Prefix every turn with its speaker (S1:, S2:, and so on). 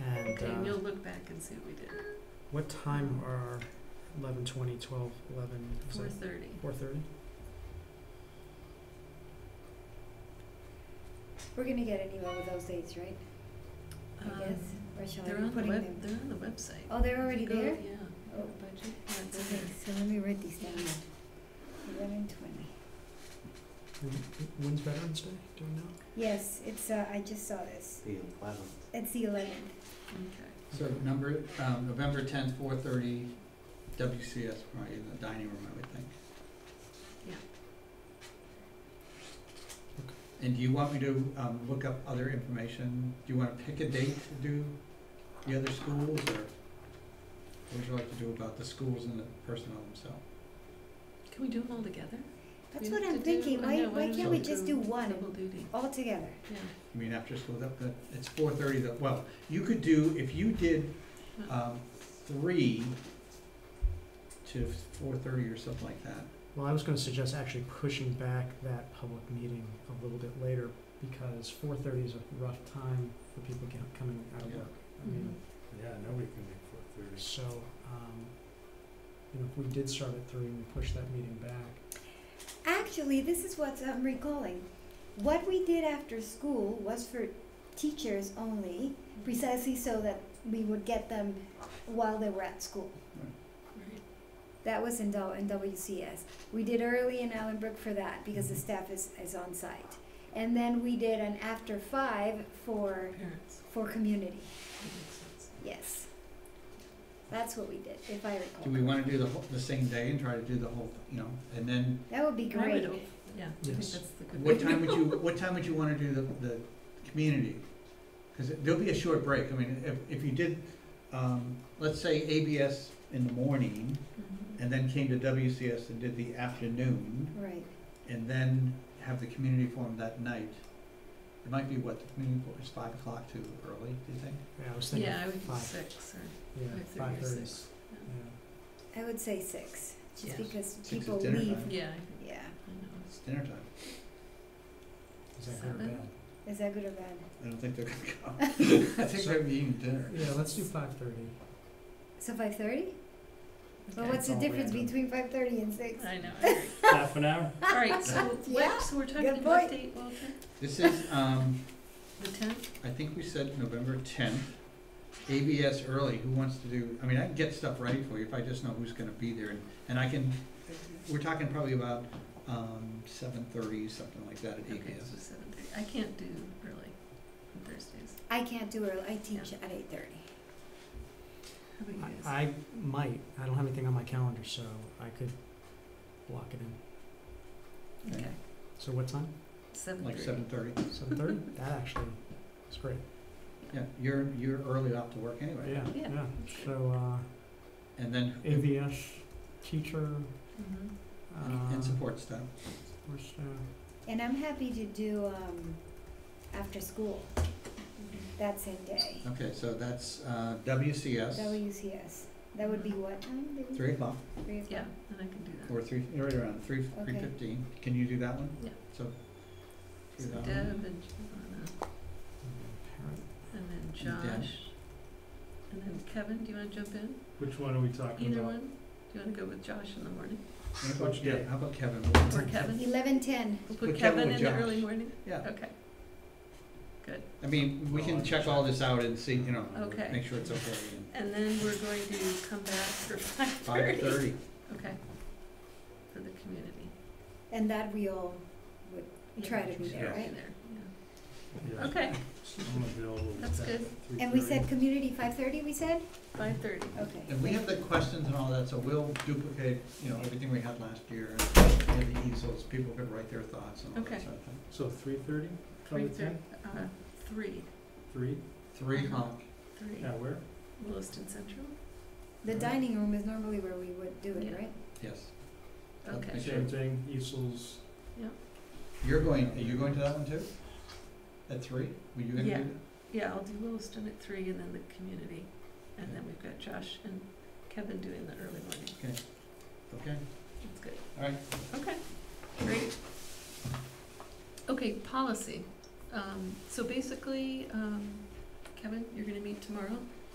S1: day.
S2: Um,
S3: uh,
S1: We'll look back and see what we did.
S3: What time are eleven twenty, twelve, eleven, is
S1: Four
S3: that
S1: thirty.
S3: four thirty?
S2: We're gonna get an email with those dates, right? I guess. Or shall
S1: Um, They're
S2: I be
S1: on the
S2: putting them?
S1: web, they're on the website.
S2: Oh, they're already
S1: You go-
S2: there?
S1: Yeah.
S2: Oh.
S1: Budget, yeah, it's
S2: Okay,
S1: there.
S2: so let me write these down. Eleven twenty.
S3: When's Veterans Day, do we know?
S2: Yes, it's, uh, I just saw this.
S4: The eleventh.
S2: It's the eleventh.
S1: Okay.
S5: So number, um, November tenth, four thirty, WCS, right, in the dining room, I would think.
S1: Yeah.
S5: And do you want me to, um, look up other information? Do you wanna pick a date to do the other schools, or what would you like to do about the schools and the personnel themselves?
S1: Can we do them all together?
S2: That's
S1: We
S2: what
S1: have
S2: I'm
S1: to do-
S2: thinking.
S1: I
S2: Why,
S1: know,
S2: why
S1: don't
S2: can't we
S1: do
S2: just do one
S1: Double duty,
S2: all together?
S1: yeah.
S5: I mean, after school, that, that, it's four thirty, that, well, you could do, if you did, um, three to four thirty or something like that,
S3: Well, I was gonna suggest actually pushing back that public meeting a little bit later, because four thirty is a rough time for people get, coming out of
S5: Yeah.
S3: work. I
S1: Mm-hmm.
S2: Mm-hmm.
S3: mean,
S4: Yeah, nobody can make four thirty.
S3: so, um, you know, if we did start at three and we pushed that meeting back,
S2: Actually, this is what I'm recalling. What we did after school was for teachers only, precisely so that we would get them while they were at school.
S1: Right.
S2: That was in, Dol- in WCS. We did early in Allenbrook for that because
S5: Mm-hmm.
S2: the staff is, is on site. And then we did an after five for,
S1: Parents,
S2: for community.
S1: that makes sense.
S2: Yes. That's what we did, if I recall.
S5: Do we wanna do the whole, the same day and try to do the whole, you know, and then,
S2: That would be
S1: I would
S2: great.
S1: op- Yeah, I think
S3: Yes.
S1: that's the good.
S5: what time would you, what time would you wanna do the, the community? Cause it- there'll be a short break, I mean, if, if you did, um, let's say ABS in the morning,
S1: Mhm.
S5: and then came to WCS and did the afternoon,
S2: Right.
S5: and then have the community forum that night. It might be what, the community forum is five o'clock too early, do you think?
S3: yeah, I was thinking
S1: Yeah, I would do
S3: five.
S1: six or,
S3: Yeah,
S1: Five thirty or
S3: five thirty,
S1: six,
S3: yeah.
S1: yeah.
S2: I would say six,
S1: Yeah.
S2: just because
S5: Six is
S2: people
S5: dinner
S2: leave.
S5: time.
S1: yeah, I think-
S2: Yeah.
S1: I know.
S5: It's dinner time,
S3: Is that good or
S1: Seven?
S3: bad?
S2: Is that good or bad?
S5: I don't think they're gonna come. I think they're eating dinner.
S3: Yeah, let's do five thirty.
S2: So five thirty? But
S1: Okay.
S2: what's the
S3: All
S2: difference
S3: random.
S2: between five thirty and six?
S1: I know, I agree.
S4: Half an hour?
S1: All right, so,
S2: Yeah,
S1: what, so we're talking
S2: good
S1: about
S2: point.
S1: date, Walter,
S5: This is, um,
S1: the tenth?
S5: I think we said November tenth, ABS early, who wants to do, I mean, I can get stuff ready for you if I just know who's gonna be there, and, and I can, we're talking probably about, um, seven thirty, something like that at
S1: Okay,
S5: ABS.
S1: so seven thirty, I can't do early on Thursdays,
S2: I can't do early. I teach at eight thirty.
S1: how about you guys?
S3: I, I might, I don't have anything on my calendar, so I could block it in.
S1: Okay,
S3: So what time?
S1: seven
S5: Like
S1: thirty.
S5: seven thirty,
S3: Seven thirty? That actually is great.
S5: yeah, you're, you're early off to work anyway.
S3: Yeah,
S1: Yeah.
S3: yeah. So,
S5: And then,
S3: uh, AVS teacher,
S1: Mhm.
S3: uh,
S5: and support staff,
S3: support staff.
S2: And I'm happy to do um after school that same day.
S5: okay, so that's, uh, WCS,
S2: WCS. That would be what time? Maybe
S5: three o'clock,
S2: Three o'clock.
S1: Yeah, then I can do that.
S5: or three, right around three, three
S2: Okay.
S5: fifteen, can you do that one?
S1: Yeah.
S5: So. do
S1: So
S5: that one.
S1: Deb and Giovanna,
S3: Parent.
S1: and then
S5: Dan.
S1: Josh, and then Kevin, do you wanna jump in?
S4: Which one are we talking
S1: Either
S4: about?
S1: one? Do you wanna go with Josh in the morning,
S5: How about-
S4: Yeah.
S5: How about Kevin?
S1: or Kevin?
S2: Eleven ten.
S1: We'll
S5: Put
S1: put
S5: Kevin
S1: Kevin
S5: with
S1: in the
S5: Josh.
S1: early morning,
S5: Yeah,
S1: okay,
S5: I mean, we can check all this out and see, you know,
S1: Okay.
S5: make sure it's okay.
S1: and then we're going to come back for five
S5: Five
S1: thirty.
S5: thirty,
S1: Okay, for the community.
S2: And that we all
S1: Yeah,
S2: Try to be
S1: should
S5: there,
S2: right?
S1: there, yeah.
S4: Yeah.
S1: Okay,
S4: I'm available.
S1: That's good.
S2: and we said community five thirty we said?
S1: five thirty.
S2: Okay.
S5: and we have the questions and all that, so we'll duplicate, you know, everything we had last year, and the easels, people could write their thoughts and all that
S1: Okay.
S5: sort of thing.
S4: So three thirty,
S1: Three
S4: Probably
S1: thirty, uh, three,
S4: three,
S5: Three o'clock,
S1: three,
S4: yeah, where?
S1: Williston Central,
S2: The dining room is normally where we would do it,
S1: Yeah.
S2: right?
S5: yes.
S1: okay.
S5: Make sure-
S4: Same thing, Easels,
S5: You're going, are you going to that one too? At three? Were you gonna do
S1: Yeah.
S5: that?
S1: Yeah, I'll do Williston at three and then the community, and then we've got Josh and Kevin doing the early morning,
S5: Okay,
S1: that's good.
S5: all right.
S1: Okay, great. Okay, policy. Um, so basically, um, Kevin, you're gonna meet tomorrow